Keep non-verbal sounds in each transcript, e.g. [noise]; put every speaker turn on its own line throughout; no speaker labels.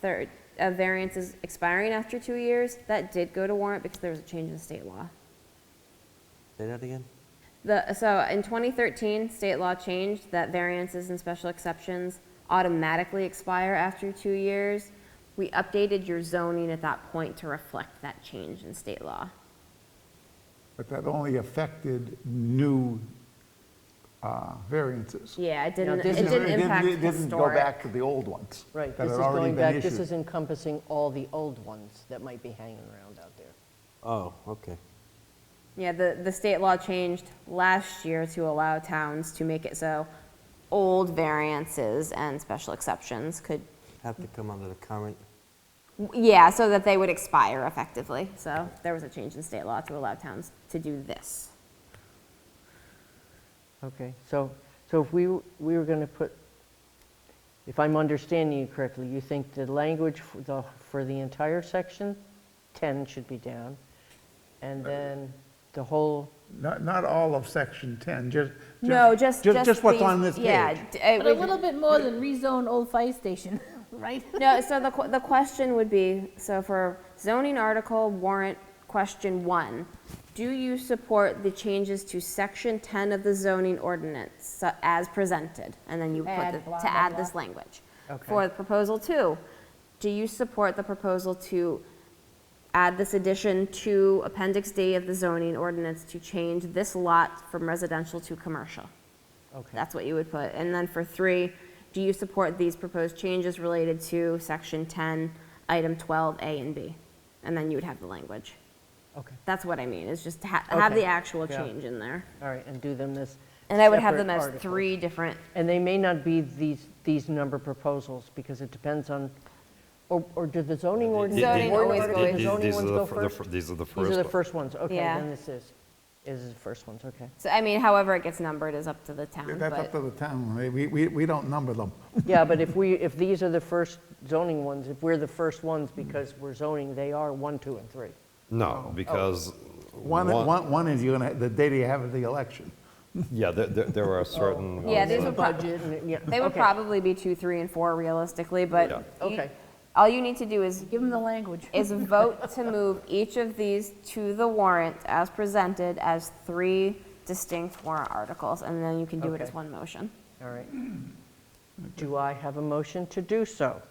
third, a variance is expiring after two years. That did go to warrant because there was a change in state law.
Say that again?
The, so in 2013, state law changed that variances and special exceptions automatically expire after two years. We updated your zoning at that point to reflect that change in state law.
But that only affected new uh, variances.
Yeah, it didn't, it
This is-
didn't impact
It didn't go
historic.
back to the old ones.
Right,
that
this
had
is
already
going
been
back, this
issued.
is encompassing all the old ones that might be hanging around out there.
Oh, okay.
Yeah, the, the state law changed last year to allow towns to make it so old variances and special exceptions could,
Have to come under the current,
yeah, so that they would expire effectively. So there was a change in state law to allow towns to do this.
Okay, so, so if we, w- we were going to put, if I'm understanding you correctly, you think the language for the, for the entire section, 10 should be down, and then the whole,
Not, not all of section 10, just.
No, just, just.
Just what's
these-
on this
Yeah.
page.
d- uh, it
But a
would-
little bit more than rezone old fire station, [laughs] right?
[laughs] No, so the, que- the question would be, so for zoning article warrant question one, do you support the changes to section ten of the zoning ordinance so- as presented? And then you put,
Add
the-
blah,
to
blah,
add
blah.
this language.
Okay.
For proposal two, do you support the proposal to add this addition to appendix D of the zoning ordinance to change this lot from residential to commercial?
okay,
That's what you would put. And then for three, do you support these proposed changes related to section 10, item 12, A and B? And then you would have the language.
okay,
That's what I mean, is just ha- have
Okay.
the actual
Yeah.
change in there.
all right, and do them this.
And I would have
separate
them as
articles.
three different,
And they may not be these, these number proposals, because it depends on, or, or do the zoning ordinance?
Zoning always
do
goes-
The
These-
zoning
these are
ones
the
go
fir- the
first?
fir- These are the first.
These are the
one.
first ones, okay,
Yeah.
then this is, this is the first ones,
[laughs]
okay.
so I mean, however it gets numbered is up to the town,
That's up
but,
to the town. They- We, we, we don't number them.
Yeah, but if we, if these are the first zoning ones, if we're the first ones because we're zoning, they are one, two, and three.
No, because.
Oh, One, one, one is you're gonna, the day you have the election.
Yeah, there, there- there are certain.
Oh.
Yeah,
ones
these
that-
would prob-
Budget and- yeah,
they would
okay.
probably be two, three, and four realistically, but
Yeah.
you-
Okay.
all you need to do is
Give them the language.
is vote to move each of these to the warrant as presented as three distinct warrant articles, and then you can do it as
Okay.
one motion.
All right. Do I have a motion to do so?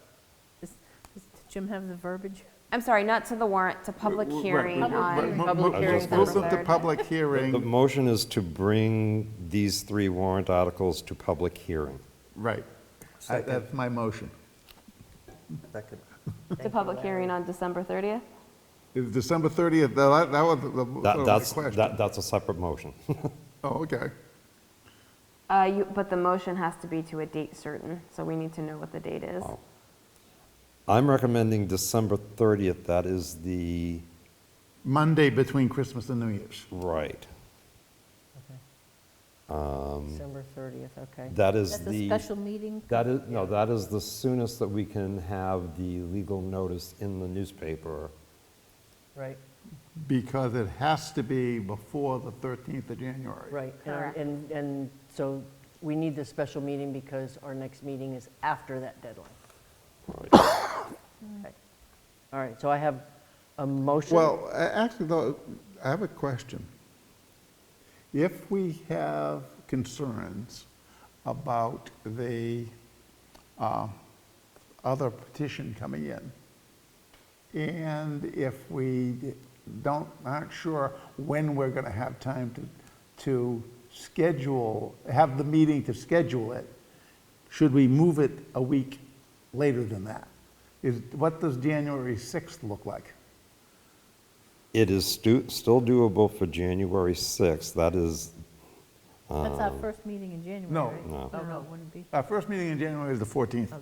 Does does Jim have the verbiage?
I'm sorry, not to the warrant, to public hearing on.
Public
hearing
Move
December
them to
third.
public
The
hearing,
motion is to bring these three warrant articles to public hearing.
right. I- That's my motion.
second.
To public hearing on December 30th?
Is December 30th, that, that was the- the, sort
That,
of my
that's,
question.
that, that's a separate motion. [laughs]
Oh, okay.
Uh, you, but the motion has to be to a date certain, so we need to know what the date is.
I'm recommending December 30th, that is the,
Monday between Christmas and New Year's.
right,
December 30th, okay.
Um, that is
That's
the.
a special meeting?
That is, no, that is the soonest that we can have the legal notice in the newspaper.
Right,
Because it has to be before the 13th of January.
right. And-
Correct.
And, and so we need this special meeting because our next meeting is after that deadline.
Right.
[coughs] Okay. All right, so I have a motion.
Well, a- actually, though, I have a question. If we have concerns about the uh, other petition coming in, and if we don't, aren't sure when we're going to have time to, to schedule, have the meeting to schedule it, should we move it a week later than that? Is, what does January 6th look like?
It is stu- still doable for January 6th, that is,
That's our first meeting in January,
no.
right?
Oh. No.
Oh, no, it wouldn't be.
Our first meeting in January is the 14th.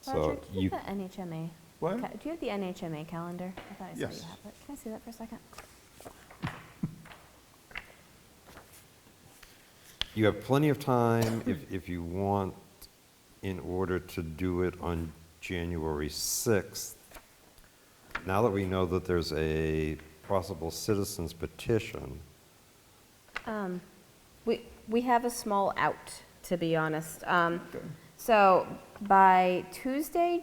so you,
NHMA.
What?
Do you have the NHMA calendar? I thought I
you Yes. have
it. Can I see that for a second?
you have plenty of time if, if you want, in order to do it on January 6th. Now that we know that there's a possible citizens petition,
We, we have a small out, to be honest. Um, So by Tuesday,